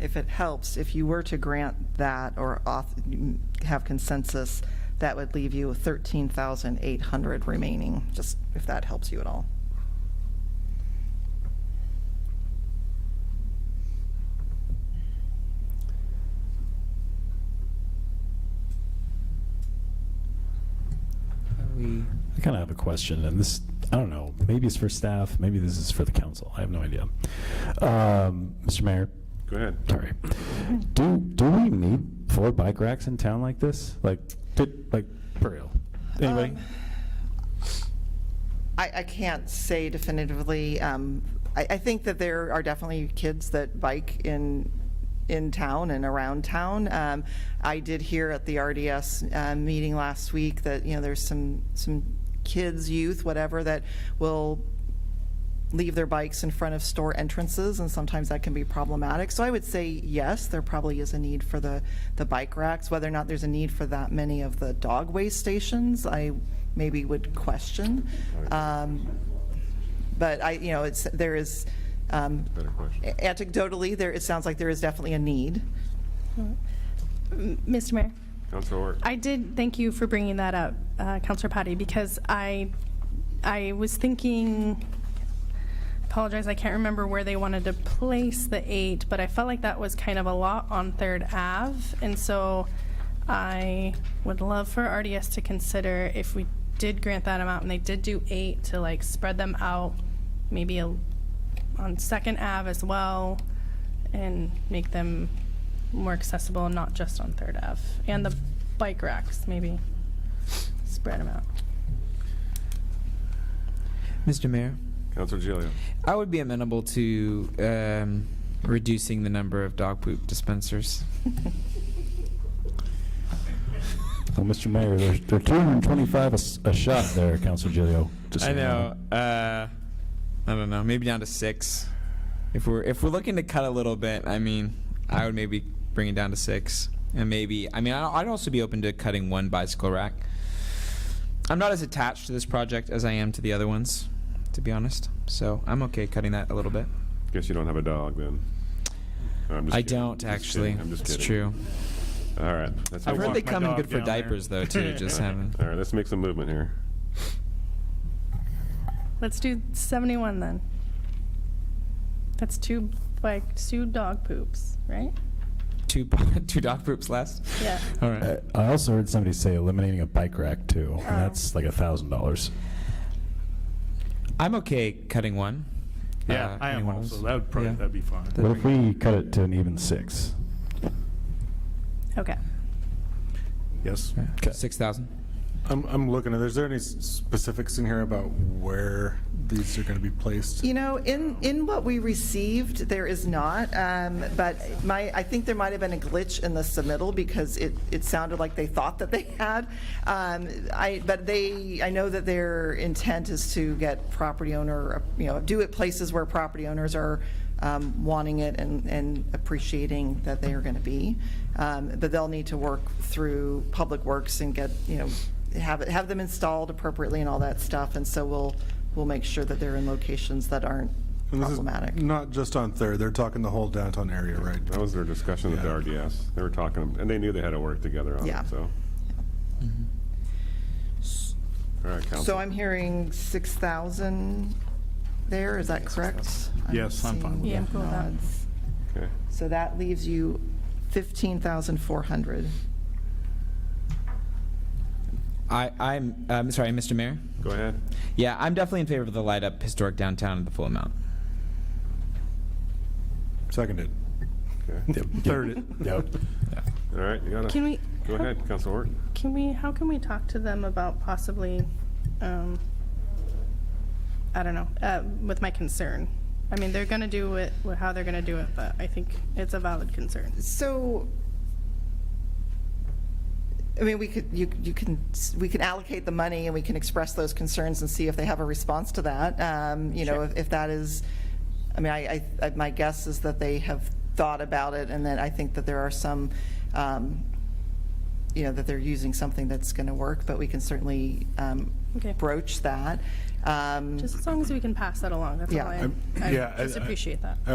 if it helps, if you were to grant that or auth- have consensus, that would leave you 13,800 remaining, just if that helps you at all. We, I kind of have a question, and this, I don't know, maybe it's for staff, maybe this is for the council, I have no idea. Um, Mr. Mayor, Go ahead. sorry. Do, do we need four bike racks in town like this? Like, did, like, for real? Um, Anybody? Um, I, I can't say definitively. Um, I, I think that there are definitely kids that bike in, in town and around town. Um, I did hear at the RDS uh, meeting last week that, you know, there's some, some kids, youth, whatever, that will leave their bikes in front of store entrances, and sometimes that can be problematic. So I would say, yes, there probably is a need for the, the bike racks. Whether or not there's a need for that many of the dog waste stations, I maybe would question. Um, But I, you know, it's, there is, um, Better question. anecdotally, there, it sounds like there is definitely a need. M- Mr. Mayor, Council Ort. I did thank you for bringing that up, uh, Counselor Patty, because I, I was thinking, apologize, I can't remember where they wanted to place the eight, but I felt like that was kind of a lot on Third Ave, and so I would love for RDS to consider if we did grant that amount, and they did do eight, to like spread them out, maybe a- on Second Ave as well, and make them more accessible, not just on Third Ave. And the bike racks, maybe spread them out. Mr. Mayor, Council Gilio. I would be amenable to um, reducing the number of dog poop dispensers. Well, Mr. Mayor, they're, they're 225 a s- a shot there, Councilor Gilio. just so I you know. Uh, I don't know. Maybe down to six. If we're if we're looking to cut a little bit, I mean, I would maybe bring it down to six, and maybe I mean I- I'd also be open to cutting one bicycle rack. I'm not as attached to this project as I am to the other ones, to be honest. So I'm okay cutting that a little bit. Guess you don't have a dog then. No, I'm just I kidding. don't Just actually. kidding. I'm just it's kidding. true. All right. Let's I've make heard some- they walk my come in dog good for down there. diapers though too. just haven't. All right, let's make some movement here. Let's do 71 then. That's two bike, two dog poops, right? Two two dog poops less. Yeah. All right. Uh, know. Uh, I I also heard somebody say eliminating a bike rack too, Oh. and that's like a $1,000. I'm okay cutting one. Yeah, Uh, I am anyone also. else? That would probably, Yeah. that'd be fine. That'd What if we cut it to an even six? Okay. Yes. Okay. Six thousand. I'm, I'm looking at, is there any s- specifics in here about where these are going to be placed? You know, in, in what we received, there is not, um, but my, I think there might have been a glitch in the submittal because it, it sounded like they thought that they had. Um, I, but they, I know that their intent is to get property owner, you know, do it places where property owners are um, wanting it and, and appreciating that they are going to be. Um, But they'll need to work through Public Works and get, you know, have, it have them installed appropriately and all that stuff. And so we'll, we'll make sure that they're in locations that aren't And this is problematic. Not just on Third, they're talking the whole downtown area, right? That was their discussion with the Yeah. RDS. They were talking, and they knew they had to work together on Yeah. it, so. All Mm-hmm. right, Council. So I'm hearing 6,000 there, is that correct? Yes, I'm fine seeing with that. Yeah, I'm cool with that. nods. Okay. So that leaves you 15,400. I I'm um, sorry, Mr. Mayor. Go ahead. Yeah, I'm definitely in favor of the light up historic downtown at the full amount. Seconded. Okay. Thirded. Yep. All right, you gotta. Can we- Go ahead, Council Ort. Can we, how can we talk to them about possibly, um, I don't know, uh, with my concern? I mean, they're gonna do it, wh- how they're gonna do it, but I think it's a valid concern. So, I mean, we could, you, you can, we can allocate the money and we can express those concerns and see if they have a response to that. Um, You know, if if that is, I mean, I, I, my guess is that they have thought about it and that I think that there are some, um, you know, that they're using something that's going to work, but we can certainly um, Okay. broach that. Um, Just as long as we can pass that along, that's all Yeah. I, I'm- I yeah, I- just I- appreciate that.